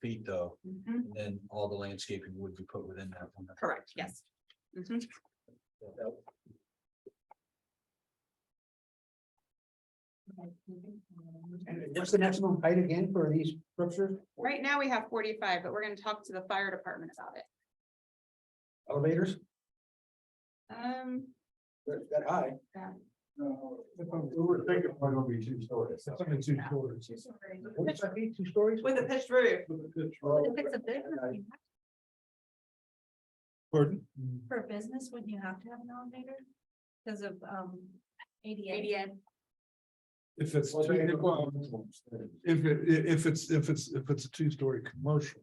feet though, Mhm. and then all the landscaping would be put within that. one. Correct, yes. Mhm. And what's the maximum height again for these structures, Right now, we have forty-five, but we're gonna talk to the fire department about it. elevators, Um, that, that high? Yeah. No, we were thinking it's gonna be two stories. It's only two stories. What's that be, two stories? with a pitched roof, If it's a business, you have- Pardon? for a business, wouldn't you have to have an elevator? Because of um ADA. ADN, If it's, two- well, if it, i- if it's, if it's, if it's a two-story commercial,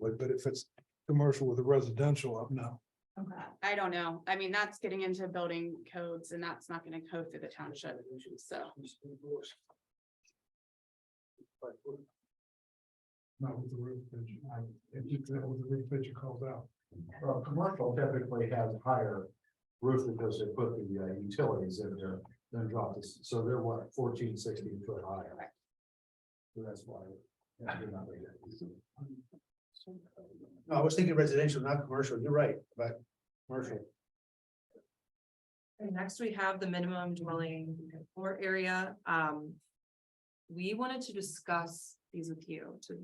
but but if it's commercial with a residential up now. Okay. I don't know. I mean, that's getting into building codes and that's not gonna go through the township, so. Not with the roof pitch. If you do it with the roof pitch, it calls out. Well, Uh, commercial typically has higher roof because they put the uh, utilities in there, then drop this, so they're what, fourteen, sixteen foot higher. So That's why. yeah, they're not very good. No, I was thinking residential, not commercial, you're right, but commercial. And next we have the minimum dwelling floor area, um. We wanted to discuss these with you to.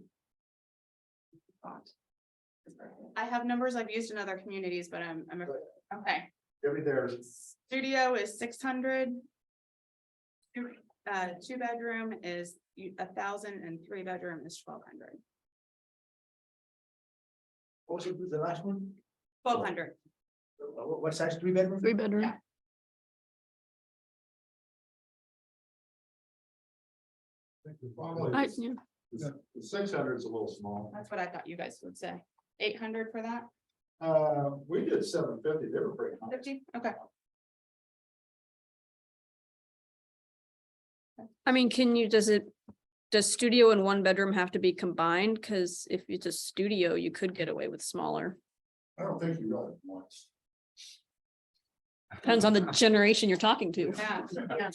Thought. I have numbers I've used in other communities, but I'm, I'm, okay. Every there's Studio is six hundred. Uh, two bedroom is a thousand and three bedroom is twelve hundred. What was it, the last one? Twelve hundred. Uh, What, what size, three bedroom? Three bedroom. Yeah. I, yeah. Six hundred is a little small. That's what I thought you guys would say. Eight hundred for that? Uh, we did seven fifty, they were pretty. high. Fifty? Okay. I mean, can you, does it, does studio and one bedroom have to be combined? Cause if it's a studio, you could get away with smaller. I don't think you got it once. Depends on the generation you're talking to. Yeah.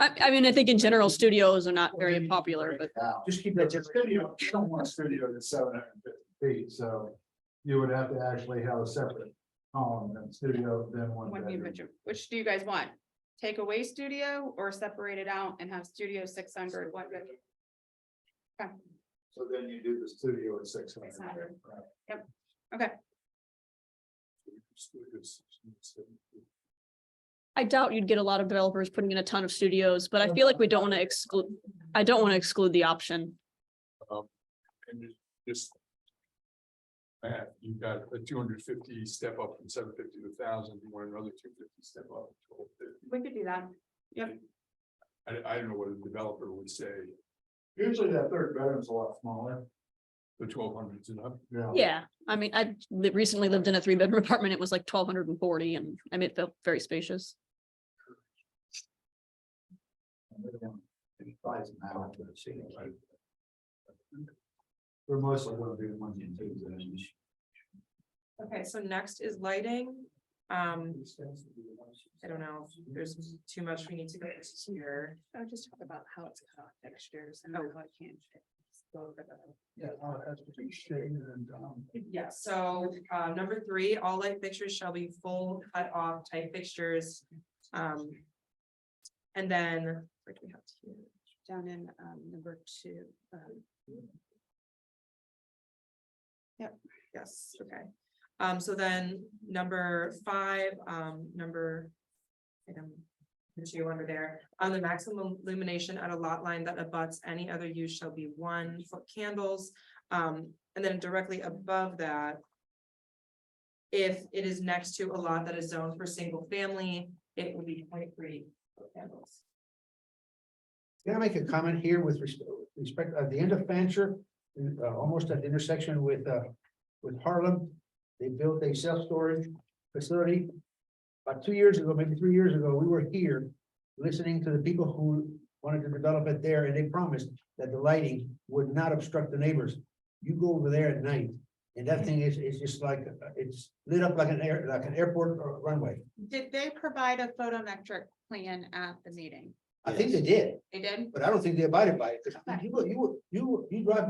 I, I mean, I think in general, studios are not very popular, but Just keep that. The studio, you don't want a studio that's seven hundred and fifty feet, so you would have to actually have a separate column and studio then one One new bedroom. bedroom. Which do you guys want? Take away studio or separate it out and have studio six hundred, one bedroom? So then you do the studio at six hundred. 600. Yep. Okay. I doubt you'd get a lot of developers putting in a ton of studios, but I feel like we don't want to exclude, I don't want to exclude the option. And it just. Matt, you've got a two hundred fifty step up from seven fifty to thousand, you want another two fifty step up. to 1250. We could do that. I, I don't know what a developer would say, Usually that third bedroom's a lot smaller. the twelve hundreds and up. Yeah, I mean, I li- recently lived in a three bedroom apartment. It was like twelve hundred and forty and I mean, it felt very spacious. Buys them out, but it's, you know, like- They're mostly gonna be the ones and twos and then you- Okay, so next is lighting, um, I don't know, if there's too much we need to go into here. I would just talk about how it's cut off textures and how it can. Yeah, that's pretty shady and, um. Yeah, so, uh, number three, all light fixtures shall be full cut off type fixtures, um. And then, like we have here. Down in um number two, um, Yes, okay. Um, so then number five, um, number. Item. Two under there, on the maximum illumination at a lot line that abuts any other use shall be one foot candles. Um, and then directly above that. If it is next to a lot that is zoned for single family, it will be point three foot candles. Can I make a comment here with respect, respect, at the end of Fancher, uh, almost at the intersection with, uh, with Harlem? They built a self-storage facility. About two years ago, maybe three years ago, we were here listening to the people who wanted to develop it there, and they promised that the lighting would not obstruct the neighbors. You go over there at night, and that thing is, is just like, uh, it's lit up like an air, like an airport or runway. did they provide a photometric plan at the meeting? I think they did, They did? but I don't think they abided by it, because Okay. you, you, you, you drive